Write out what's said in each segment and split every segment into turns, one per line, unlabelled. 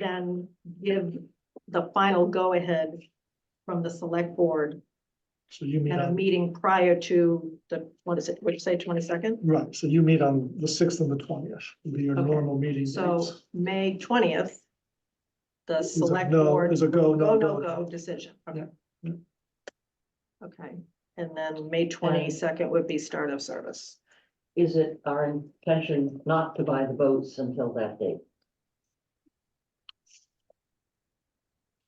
then give the final go-ahead from the select board
So you meet
at a
on,
meeting prior to the, what is it, what'd you say, twenty-second?
right, so you meet on the sixth and the twentieth, be your
Okay,
normal meeting
So
dates.
May twentieth, the
Is a
select
no-
board,
Is a go,
go,
no,
no,
go.
go decision.
Yeah, yeah.
Okay, and then May twenty-second would be start of service.
Is it our intention not to buy the boats until that date?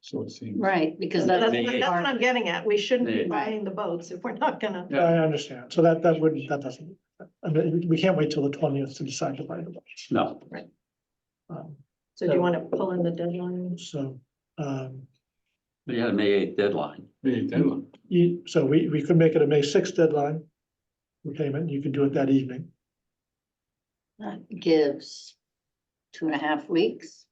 So it seems.
Right, because
That's
that's.
what that's what I'm getting at. We shouldn't be
Yeah.
buying the boats if we're not gonna,
Yeah.
I understand, so that, that wouldn't, that doesn't, I mean, we can't wait till the twentieth to decide to buy the boats.
No,
Um,
so do you wanna pull in the deadline?
So, um,
We had a May eighth deadline.
the deadline.
you, so we, we could make it a May sixth deadline. For payment, you could do it that evening,
That gives two and a half weeks.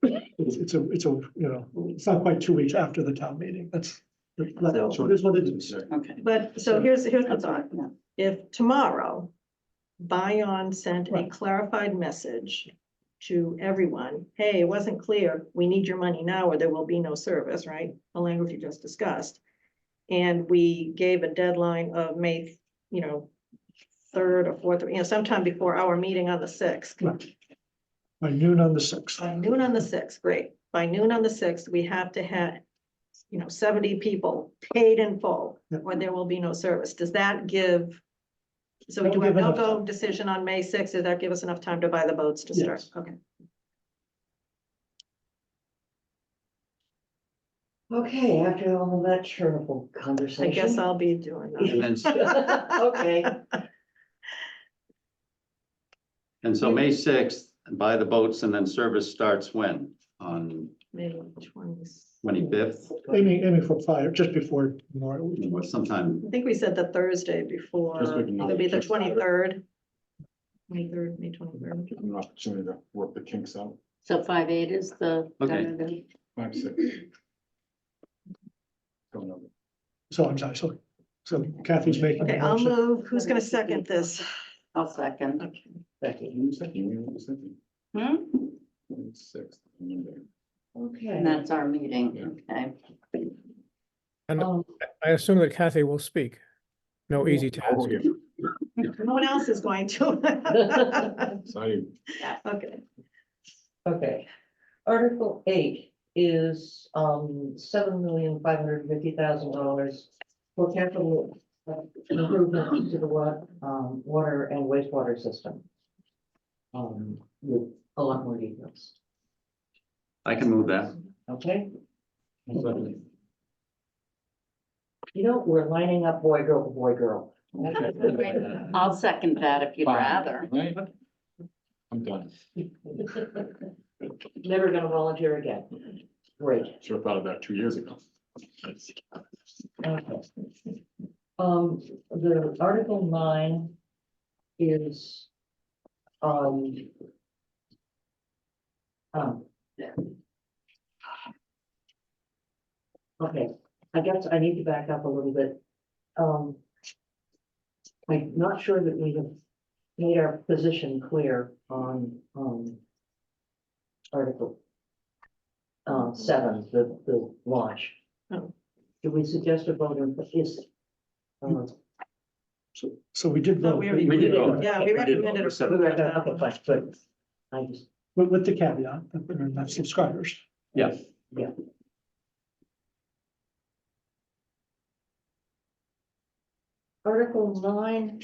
it's, it's a, it's a, you know, it's not quite two weeks after the town meeting, that's. That's
So-
what it is.
Okay.
But, so here's, here's the
That's
thought.
all, yeah.
if tomorrow Bion sent a
Right.
clarified message to everyone, hey, it wasn't clear, we need your money now or there will be no service, right? The language you just discussed. And we gave a deadline of May, you know, third or fourth, you know, sometime before our meeting on the sixth.
Right. By noon on the sixth.
By noon on the sixth, great. By noon on the sixth, we have to have, you know, seventy people paid in full,
Yeah.
or there will be no service. Does that give? So
That
do
would
a
give enough
no-go
time.
decision on May sixth? Does that give us enough time to buy the boats to start?
Yes.
Okay.
Okay, after all of that charitable
I
conversation.
guess I'll be doing that.
And then,
Okay,
and so May sixth, buy the boats and then service starts when? On
May twenty.
twenty-fifth
Aiming, aiming for fire, just before Memorial Week.
or sometime,
I think we said the Thursday before,
Just looking at
it'll be the
it.
twenty-third. Twenty-third, May twenty-third.
An opportunity to work the kinks out.
So five eight is the.
Okay.
tentative.
Five, six. Don't know.
So I'm sorry, so, so Kathy's making. the
Okay, I'll
motion.
move. Who's gonna second this?
I'll second.
Okay.
Becky.
You said you knew what you said.
Hmm?
Six, Monday.
And
Okay.
that's our meeting, okay.
um,
I assume that Kathy will speak. No
Yeah.
easy task.
No one else is going to.
Sorry.
Okay.
Okay. Article eight is um seven million five hundred fifty thousand dollars for capital uh, improvement to the wa- um water and wastewater system. Um, with a lot more details,
I can move that.
okay?
Sorry.
You know, we're lining up boy, girl, boy, girl.
I'll second that if you'd
Fine.
rather.
Right? I'm done.
Never gonna volunteer again. Great.
Should have thought of that two years ago.
Um, the article nine is, um. um, Okay, I guess I need to back up a little bit. Um. I'm not sure that we have made our position clear on, um. Article. Um, seven, the, the launch.
Oh.
Do we suggest a vote on this? Um,
So, so we did
No,
vote,
we
but
already
We did
you-
vote.
Yeah, we
We did
recommended.
vote.
approval
We were done,
of
okay,
that one.
fine, but I just,
with, with the caveat that they're not subscribers.
Yeah,
Article nine.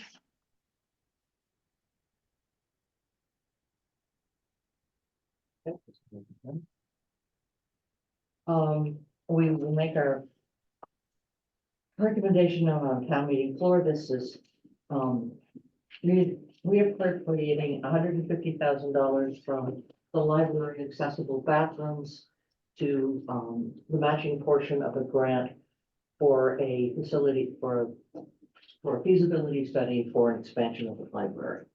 Um, we will make our recommendation on our town meeting floor. This is, um, we, we are appropriating hundred and fifty thousand dollars from the library accessible bathrooms to, um, the matching portion of a grant for a facility, for a for a feasibility study for an expansion of the library.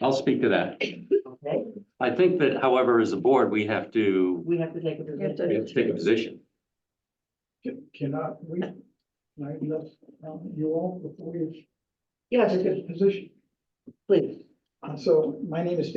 I'll speak to that.
Okay,
I think that however, as a board, we have to,
we have to take a
We have to-
position.
we have to take a position.
Cannot, we, might let um, you all before you.
Yes, it's a position. Please.
Uh, So my name is